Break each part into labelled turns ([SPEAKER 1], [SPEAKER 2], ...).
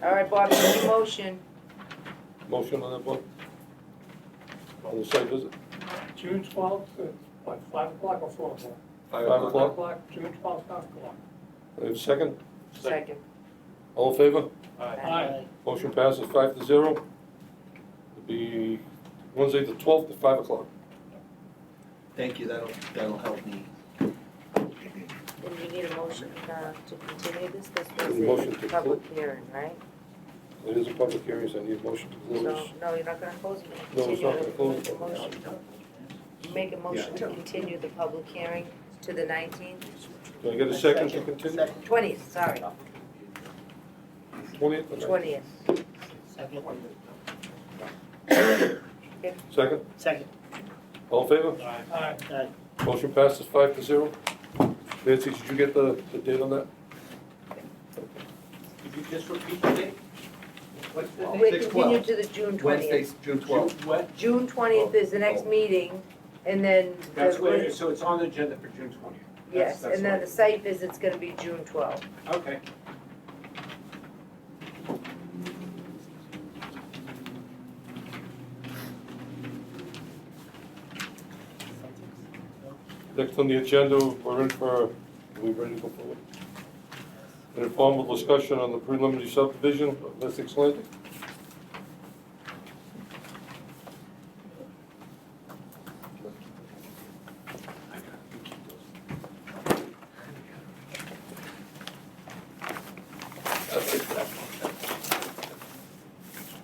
[SPEAKER 1] All right, Bobby, any motion?
[SPEAKER 2] Motion on that one? On the site visit?
[SPEAKER 3] June twelfth, what, five o'clock or four o'clock?
[SPEAKER 2] Five
[SPEAKER 3] Five
[SPEAKER 2] o'clock?
[SPEAKER 3] o'clock, June twelfth, five o'clock.
[SPEAKER 2] I have a second?
[SPEAKER 1] Second.
[SPEAKER 2] All in favor?
[SPEAKER 3] Aye.
[SPEAKER 2] Motion passes five to zero. It'll be Wednesday the twelfth at five o'clock.
[SPEAKER 4] Thank you, that'll, that'll help me.
[SPEAKER 1] Then you need a motion uh, to continue this, this was
[SPEAKER 2] Motion to
[SPEAKER 1] a
[SPEAKER 2] close.
[SPEAKER 1] public hearing, right?
[SPEAKER 2] It is a public hearing, so I need a motion to close.
[SPEAKER 1] So, no, you're not gonna close it,
[SPEAKER 2] No,
[SPEAKER 1] continue
[SPEAKER 2] it's not
[SPEAKER 1] the,
[SPEAKER 2] gonna
[SPEAKER 1] make a
[SPEAKER 2] close.
[SPEAKER 1] motion. Make a motion to continue the public hearing to the nineteenth,
[SPEAKER 2] Do I get a second to continue?
[SPEAKER 1] twentieth, sorry,
[SPEAKER 2] Twentieth? Okay.
[SPEAKER 1] twentieth.
[SPEAKER 5] Second.
[SPEAKER 2] Second?
[SPEAKER 5] Second.
[SPEAKER 2] All in favor?
[SPEAKER 3] Aye.
[SPEAKER 5] Aye.
[SPEAKER 2] Motion passes five to zero. Nancy, did you get the, the date on that?
[SPEAKER 6] Could you just repeat the date? What's the date?
[SPEAKER 1] We
[SPEAKER 4] Six
[SPEAKER 1] continue
[SPEAKER 4] twelve.
[SPEAKER 1] to the June
[SPEAKER 4] Wednesday,
[SPEAKER 1] twentieth.
[SPEAKER 4] June twelfth.
[SPEAKER 6] Ju- What?
[SPEAKER 1] June twentieth is the next
[SPEAKER 4] Oh.
[SPEAKER 1] meeting, and then
[SPEAKER 6] That's where, it
[SPEAKER 1] the,
[SPEAKER 6] is. so it's on the agenda for June twentieth?
[SPEAKER 1] yes, and then the site visit's gonna be June twelfth.
[SPEAKER 6] Okay.
[SPEAKER 2] Next on the agenda, we're in for, are we ready to go forward? An informal discussion on the preliminary subdivision of Essex Landing.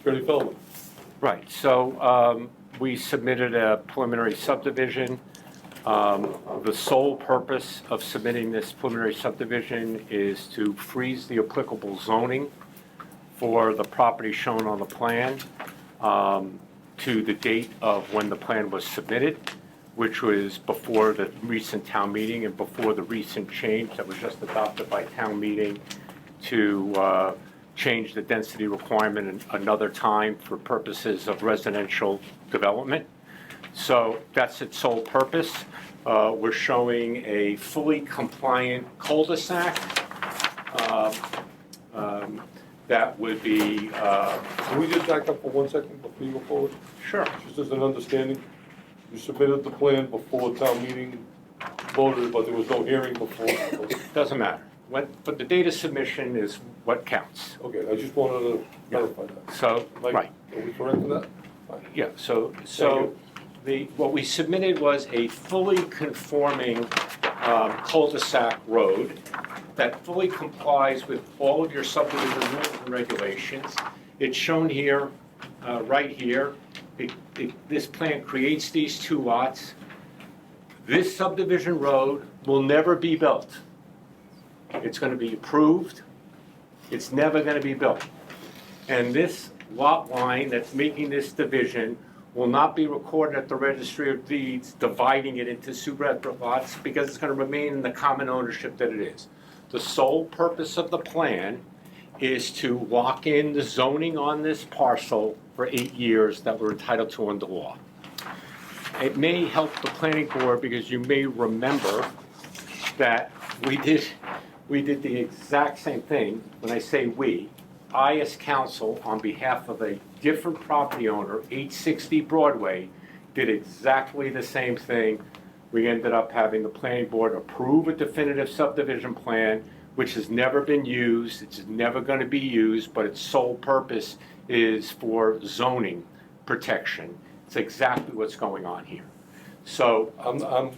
[SPEAKER 2] Attorney Feldman,
[SPEAKER 7] Right, so um, we submitted a preliminary subdivision. Um, The sole purpose of submitting this preliminary subdivision is to freeze the applicable zoning for the property shown on the plan um, to the date of when the plan was submitted, which was before the recent town meeting and before the recent change that was just adopted by town meeting to uh, change the density requirement an- another time for purposes of residential development. So that's its sole purpose. Uh, We're showing a fully compliant cul-de-sac uh, um, that would be, uh,
[SPEAKER 2] can we just back up for one second before you go forward?
[SPEAKER 7] sure,
[SPEAKER 2] Just as an understanding, you submitted the plan before town meeting voted, but there was no hearing before.
[SPEAKER 7] doesn't matter. What- But the data submission is what counts.
[SPEAKER 2] Okay, I just wanted to clarify that.
[SPEAKER 7] So,
[SPEAKER 2] Mike,
[SPEAKER 7] right.
[SPEAKER 2] Are we correct in that?
[SPEAKER 7] Yeah, so, so the, what we submitted was a fully conforming um, cul-de-sac road that fully complies with all of your subdivision rules and regulations. It's shown here, uh, right here. It- it- This plan creates these two lots. This subdivision road will never be built. It's going to be approved. It's never going to be built. And this lot line that's making this division will not be recorded at the registry of deeds, dividing it into separate lots, because it's gonna remain in the common ownership that it is. The sole purpose of the plan is to lock in the zoning on this parcel for eight years that we're entitled to under law. It may help the planning board, because you may remember that we did, we did the exact same thing. When I say we, I as counsel, on behalf of a different property owner, 860 Broadway, did exactly the same thing. We ended up having the planning board approve a definitive subdivision plan, which has never been used, it's never going to be used, but its sole purpose is for zoning protection. It's exactly what's going on here. So
[SPEAKER 2] I'm, I'm,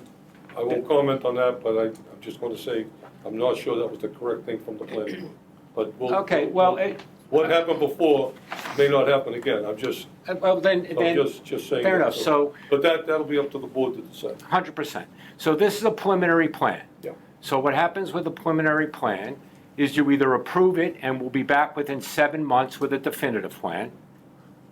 [SPEAKER 2] I won't comment on that, but I, I'm just gonna say, I'm not sure that was the correct thing from the planning board. But we'll.
[SPEAKER 7] Okay, well, it-
[SPEAKER 2] What happened before may not happen again. I'm just,
[SPEAKER 7] Uh, Well, then,
[SPEAKER 2] I'm
[SPEAKER 7] then,
[SPEAKER 2] just, just saying.
[SPEAKER 7] fair
[SPEAKER 2] that.
[SPEAKER 7] enough, so,
[SPEAKER 2] But that, that'll be up to the board to decide.
[SPEAKER 7] hundred percent. So this is a preliminary plan.
[SPEAKER 2] Yeah.
[SPEAKER 7] So what happens with a preliminary plan is you either approve it and we'll be back within seven months with a definitive plan,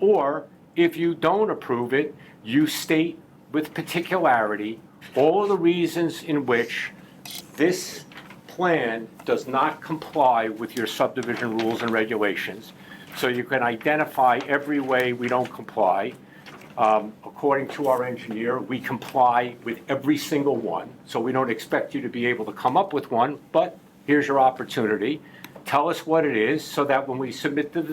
[SPEAKER 7] or if you don't approve it, you state with particularity all of the reasons in which this plan does not comply with your subdivision rules and regulations. So you can identify every way we don't comply. Um, According to our engineer, we comply with every single one, so we don't expect you to be able to come up with one, but here's your opportunity. Tell us what it is, so that when we submit to the